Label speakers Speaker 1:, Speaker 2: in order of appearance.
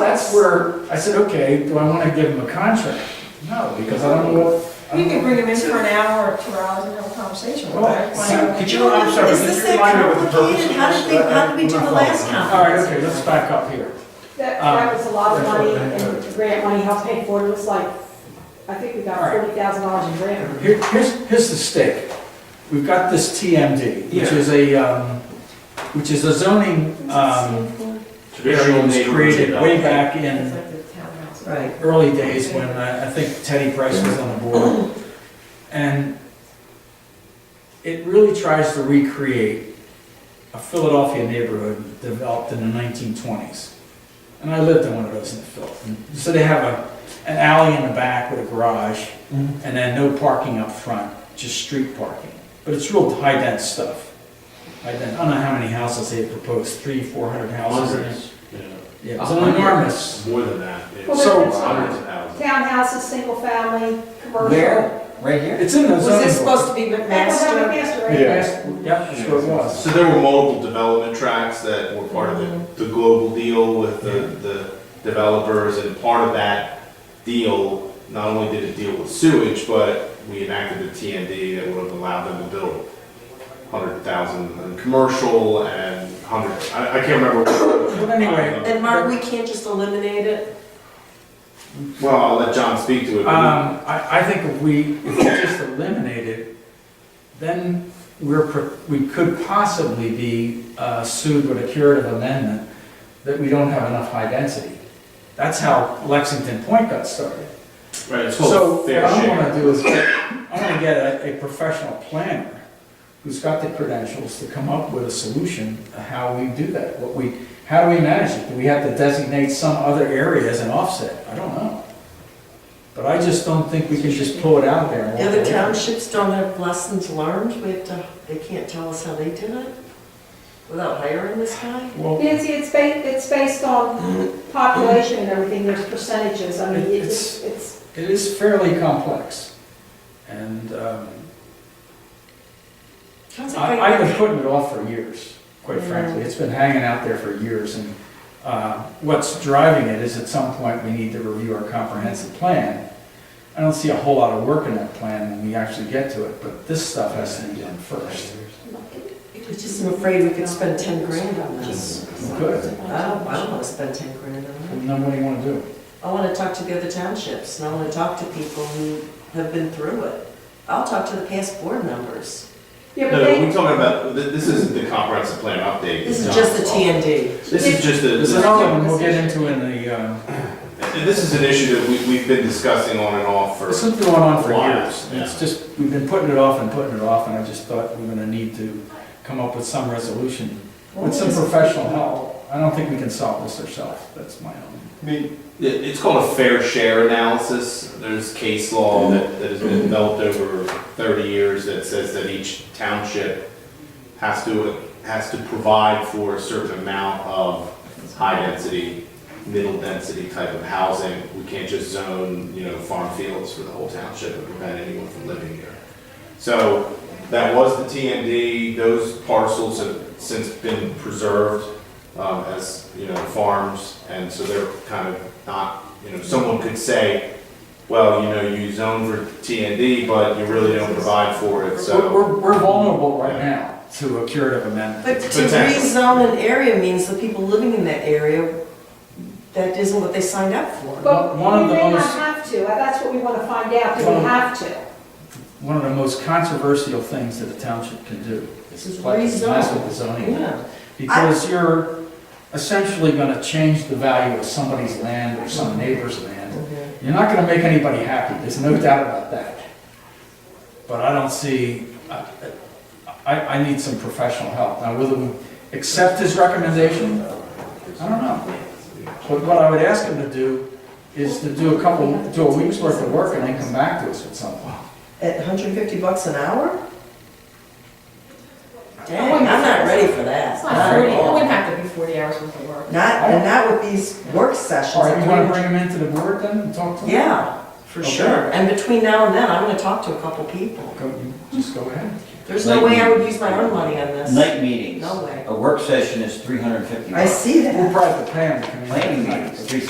Speaker 1: that's where I said, okay, do I want to give him a contract? No, because I don't know what. I
Speaker 2: You don't can know- bring him in for an hour or two hours and have a conversation with
Speaker 1: Well,
Speaker 2: him.
Speaker 1: so-
Speaker 2: Like,
Speaker 3: Could you, I'm sorry,
Speaker 4: Is
Speaker 3: could
Speaker 4: this
Speaker 3: you remind me
Speaker 4: that
Speaker 3: what the purpose
Speaker 4: complicated?
Speaker 3: of
Speaker 4: How did we,
Speaker 3: this? uh,
Speaker 4: how did we do the last
Speaker 1: All right,
Speaker 4: conference?
Speaker 1: okay, let's back up here.
Speaker 5: That,
Speaker 1: Um,
Speaker 5: that was a lot of
Speaker 1: that's what
Speaker 5: money,
Speaker 1: they had.
Speaker 5: and grant money helped pay for it, it was like, I think we got
Speaker 1: All right.
Speaker 5: forty thousand dollars in grant.
Speaker 1: Here, here's, here's the stake. We've got this TMD, which
Speaker 3: Yeah.
Speaker 1: is a, um, which is a zoning, um, area that was created way back in
Speaker 2: It's like the townhouse.
Speaker 4: Right.
Speaker 1: early days when uh, I, I think Teddy Price was on the board. And it really tries to recreate a Philadelphia neighborhood developed in the nineteen twenties. And I lived in one of those in Philadelphia. So they have a, an alley in the back with a garage
Speaker 3: Mhm.
Speaker 1: and then no parking up front, just street parking. But it's real high dense stuff. High dense, I don't know how many houses they proposed, three, four hundred houses. in it.
Speaker 6: Hundreds, yeah,
Speaker 1: Yeah, it's enormous.
Speaker 6: more than that. It's
Speaker 5: Well,
Speaker 1: So-
Speaker 6: Hundreds of thousands.
Speaker 5: Townhouses, single family, commercial.
Speaker 3: Where? Right here?
Speaker 1: It's in the zoning.
Speaker 4: Was this
Speaker 1: board.
Speaker 4: supposed to be
Speaker 5: That's what happened
Speaker 4: McMaster?
Speaker 5: yesterday.
Speaker 1: Yeah, that's what it was.
Speaker 6: So there were multiple development tracks that were part of the, the global deal with the, the developers, and part of that deal, not only did it deal with sewage, but we enacted a TND that would have allowed them to build hundred thousand in commercial and hundred, I, I can't remember.
Speaker 1: But anyway,
Speaker 4: And Mark, we can't just eliminate it?
Speaker 6: Well, I'll let John speak to it.
Speaker 1: Um, I, I think if we, if we just eliminate it, then we're, pro- we could possibly be uh, sued with a curative amendment that we don't have enough high density. That's how Lexington Point got started.
Speaker 6: Right, it's
Speaker 1: So
Speaker 6: called
Speaker 1: what
Speaker 6: fair
Speaker 1: I
Speaker 6: share.
Speaker 1: wanna do is, get- I wanna get a, a professional planner who's got the credentials to come up with a solution of how we do that, what we, how do we manage it? Do we have to designate some other area as an offset? I don't know. But I just don't think we can just pull it out there. and
Speaker 4: The
Speaker 1: walk
Speaker 4: other
Speaker 1: away.
Speaker 4: townships don't have lessons learned, we have to, they can't tell us how they did it without hiring this guy?
Speaker 1: Well,
Speaker 5: Nancy, it's ba, it's based on population and everything, there's percentages, I mean,
Speaker 1: It-
Speaker 5: it's, it's,
Speaker 1: it is fairly complex. And, um,
Speaker 4: Sounds like
Speaker 1: I, I've been
Speaker 4: I-
Speaker 1: putting it off for years, quite
Speaker 4: Yeah.
Speaker 1: frankly. It's been hanging out there for years, and uh, what's driving it is at some point, we need to review our comprehensive plan. I don't see a whole lot of work in that plan when we actually get to it, but this stuff has to be done first.
Speaker 4: I just am afraid we could spend ten grand on this.
Speaker 1: Good.
Speaker 4: I don't, I don't wanna spend ten grand on it.
Speaker 1: And then what do you want to do?
Speaker 4: I wanna talk to the other townships, and I wanna talk to people who have been through it. I'll talk to the past board members.
Speaker 5: yeah, but
Speaker 6: No,
Speaker 5: they,
Speaker 6: we're talking about, th- this isn't the comprehensive plan update.
Speaker 4: This is just the TND.
Speaker 6: This is
Speaker 1: This
Speaker 6: just
Speaker 1: is
Speaker 6: a,
Speaker 1: something we'll get into in the, uh,
Speaker 6: this is an issue that we, we've been discussing on and off for,
Speaker 1: this has been going on for
Speaker 6: Why?
Speaker 1: years. And It's just, we've been putting it off and putting it off, and I just thought we're going to need to come up with some resolution with some professional help. I don't think we can solve this ourselves. That's my own.
Speaker 6: I mean, it, it's called a fair share analysis. There's case law that, that has been developed over thirty years that says that each township has to, has to provide for a certain amount of high-density, middle-density type of housing. We can't just zone, you know, farm fields for the whole township and prevent anyone from living here. So that was the TMD. Those parcels have since been preserved um, as, you know, farms. And so they're kind of not, you know, someone could say, well, you know, you zone for TND, but you really don't provide for it,
Speaker 1: We're,
Speaker 6: so.
Speaker 1: we're- we're vulnerable right now to a curative amendment.
Speaker 4: But to rezone an area means the people living in that area, that isn't what they signed up for.
Speaker 5: but
Speaker 1: one of
Speaker 5: we
Speaker 1: the
Speaker 5: may not
Speaker 1: most-
Speaker 5: have to, that's what we want to find out, do
Speaker 1: One of-
Speaker 5: we have to?
Speaker 1: One of the most controversial things that a township can do is
Speaker 4: Is
Speaker 1: like mess
Speaker 4: rezone.
Speaker 1: with the zoning.
Speaker 4: Yeah.
Speaker 1: Because you're essentially gonna change the value of somebody's land or some neighbor's land. You're not gonna make anybody happy, there's no doubt about that. But I don't see, I, I, I need some professional help. Now, whether we accept his recommendation, I don't know. But what I would ask him to do is to do a couple, do a week's worth of work and then come back to us with something.
Speaker 4: At hundred and fifty bucks an hour? Dang, I'm not ready for that.
Speaker 2: It's
Speaker 4: Not
Speaker 2: not
Speaker 4: at
Speaker 2: forty, it
Speaker 4: all.
Speaker 2: wouldn't have to be forty hours worth of work.
Speaker 4: Not, and not with these work sessions.
Speaker 1: All right, you wanna bring him into the board then and talk to him?
Speaker 4: Yeah, for
Speaker 1: Okay.
Speaker 4: sure. And between now and then, I'm gonna talk to a couple people.
Speaker 1: Go, you just go ahead.
Speaker 4: There's no way I would use my own money on this.
Speaker 3: Night meetings.
Speaker 4: No way.
Speaker 3: A work session is three hundred and fifty
Speaker 4: I
Speaker 3: bucks.
Speaker 4: see that.
Speaker 1: We'll probably have to pay him to come in.
Speaker 3: Planning meetings, three